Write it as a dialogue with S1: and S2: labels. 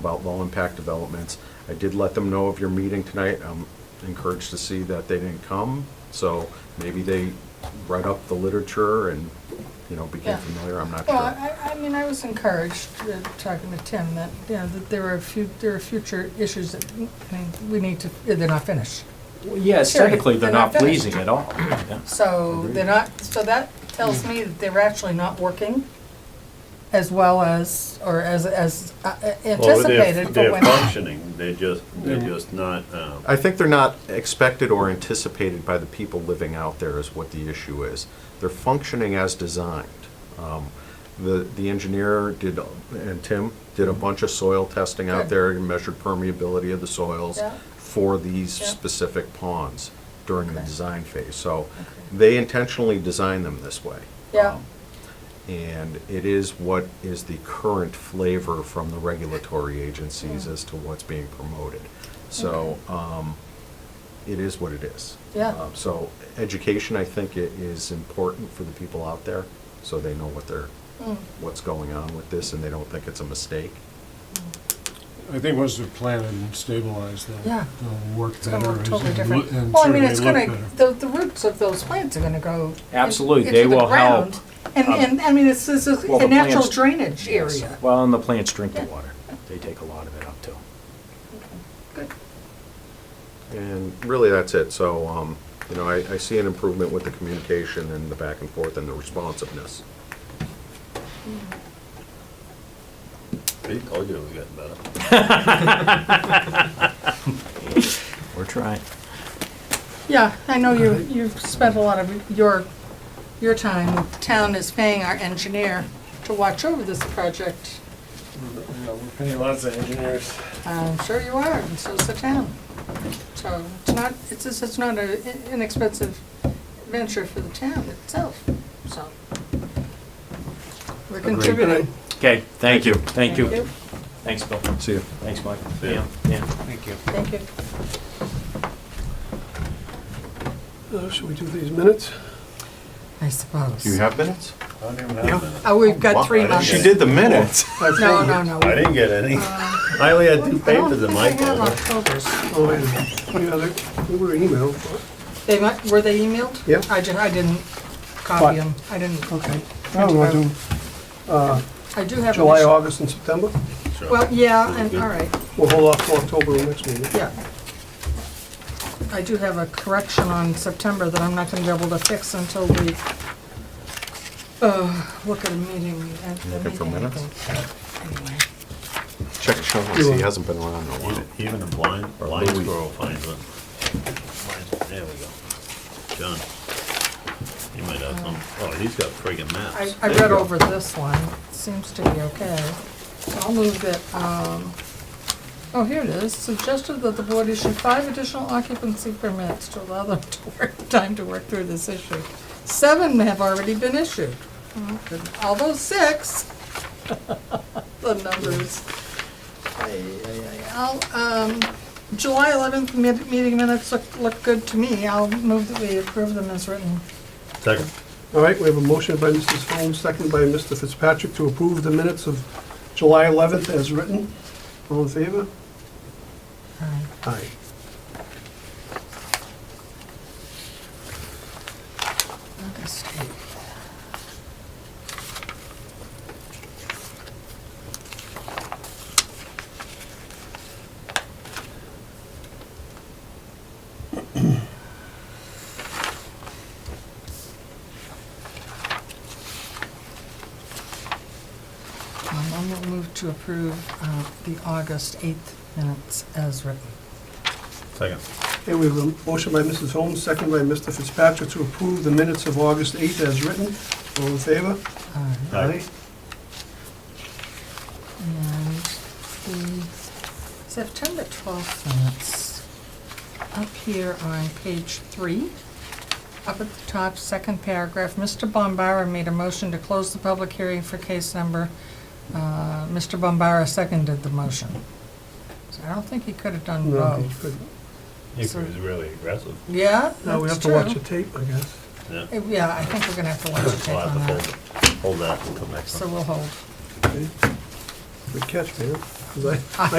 S1: about low-impact developments. I did let them know of your meeting tonight. I'm encouraged to see that they didn't come, so maybe they read up the literature and, you know, became
S2: Yeah.
S1: familiar, I'm not
S2: Well,
S1: sure.
S2: I, I mean, I was encouraged, uh, talking to Tim, that, you know, that there are a few, there are future issues that, I mean, we need to, they're not finished.
S3: Well, Yeah, aesthetically, they're
S2: They're not
S3: not pleasing at all. Yeah.
S2: So they're not, so that tells me that they're actually not working as well as, or as, as uh,
S4: Well, they're-
S2: anticipated for
S4: They're
S2: when.
S4: functioning, they're just, they're just not, um,
S1: I think they're not expected or anticipated by the people living out there is what the issue is. They're functioning as designed. Um, The, the engineer did, and Tim, did a bunch of soil testing out
S2: Good.
S1: there and measured permeability of the soils
S2: Yeah.
S1: for these
S2: Yeah.
S1: specific ponds during the
S2: Okay.
S1: design phase. So they intentionally designed them this way.
S2: Yeah.
S1: Um, And it is what is the current flavor from the regulatory agencies as to what's being promoted. So um, it is what it is.
S2: Yeah.
S1: Um, So education, I think, i- is important for the people out there, so they know what they're, what's going on with this, and they don't think it's a mistake.
S5: I think once they're planted and stabilized, they'll,
S2: Yeah.
S5: they'll work
S2: It's
S5: better.
S2: gonna look
S5: and
S2: totally
S5: lo-
S2: different.
S5: and
S2: Well, I mean,
S5: certainly
S2: it's
S5: look
S2: gonna,
S5: better.
S2: the, the roots of those plants are gonna go. in-
S3: Absolutely,
S2: into
S3: they
S2: the
S3: will
S2: ground.
S3: help. uh,
S2: And, and, I mean, it's, this is
S3: Well,
S2: a
S3: the
S2: natural
S3: plants-
S2: drainage area.
S3: Well, and the plants drink the
S2: Yeah.
S3: water. They take a lot of it up too.
S2: Good.
S1: And really, that's it. So, um, you know, I, I see an improvement with the communication and the back and forth and the responsiveness.
S4: I told you it was getting better.
S3: We're trying.
S2: Yeah, I know you, you've spent a lot of your, your time, the town is paying our engineer to watch over this project.
S6: We're paying lots of engineers.
S2: I'm sure you are, and so's the town. So it's not, it's, just- it's not an inexpensive venture for the town itself, so. We're contributing.
S3: Okay, thank you, thank you.
S2: Thank you.
S3: Thanks, Bill.
S1: See you.
S3: Thanks, Mike.
S4: See ya.
S3: yeah.
S6: Thank you.
S2: Thank you.
S6: Uh, Should we do these minutes?
S2: I suppose.
S1: Do you have minutes?
S4: I don't even have minutes.
S2: Oh, we've got three
S4: Wow, I
S2: months.
S4: didn't
S1: She did the minutes.
S2: No, no, no.
S4: I didn't get any. I only had two papers in my
S2: Uh, I don't
S4: folder.
S2: think I have October's.
S6: Oh, wait a minute. Yeah, they- they were emailed.
S2: They might, were they emailed?
S6: Yeah.
S2: I did, I didn't copy them, I didn't.
S6: Okay. Now we want to do
S2: I do have.
S6: July,
S2: initial-
S6: August, and September.
S4: Sure.
S2: Well, yeah, and, all right,
S6: We'll hold off till October of next meeting.
S2: yeah. I do have a correction on September that I'm not gonna be able to fix until we, uh, look at a meeting. at the
S1: Looking for
S2: meeting, I
S1: minutes?
S2: think. Anyway,
S1: Check the shovel, see, he hasn't been around in a while.
S4: Even- Even a blind, blind
S1: Louis.
S4: squirrel finds it. Blind- There we go. John, you might have some, oh, he's got friggin'
S2: I,
S4: maps.
S2: Uh, I
S4: There you
S2: read
S4: go.
S2: over this one, It seems to be okay. So I'll move that, um, oh, here it is, suggested that the board issue five additional occupancy permits to allow them to work, time to work through this issue. Seven have already been issued, although six, the numbers. Ay, ay, ay. I'll, um, July eleventh meeting minutes look, look good to me, I'll move that we approve them as written.
S4: Second,
S6: All right, we have a motion by Mrs. Holmes, second by Mr. Fitzpatrick to approve the minutes of July 11th as written. All in favor?
S2: All right.
S6: Aye.
S2: August Um, I'm going to move to approve uh, the August 8th minutes as written.
S4: second.
S6: Okay, we have a motion by Mrs. Holmes, second by Mr. Fitzpatrick to approve the minutes of August 8th as written. All in favor?
S2: All right.
S4: Aye.
S2: And the September 12th minutes, up here on page three, up at the top, second paragraph, Mr. Bombara made a motion to close the public hearing for case number. uh, Mr. Bombara seconded the motion. So I don't think he could have done
S6: No, he
S2: both.
S6: couldn't.
S4: He was
S2: Sir.
S4: really aggressive.
S2: Yeah,
S6: Now we
S2: that's
S6: have to
S2: true.
S6: watch the tape, I guess.
S4: Yeah.
S2: Uh, Yeah, I think we're gonna have to watch it
S4: I'll
S2: on
S4: have to
S2: that.
S4: hold, hold that until next
S2: So
S4: one.
S2: we'll hold.
S6: Okay. Good catch, man. 'cause I- I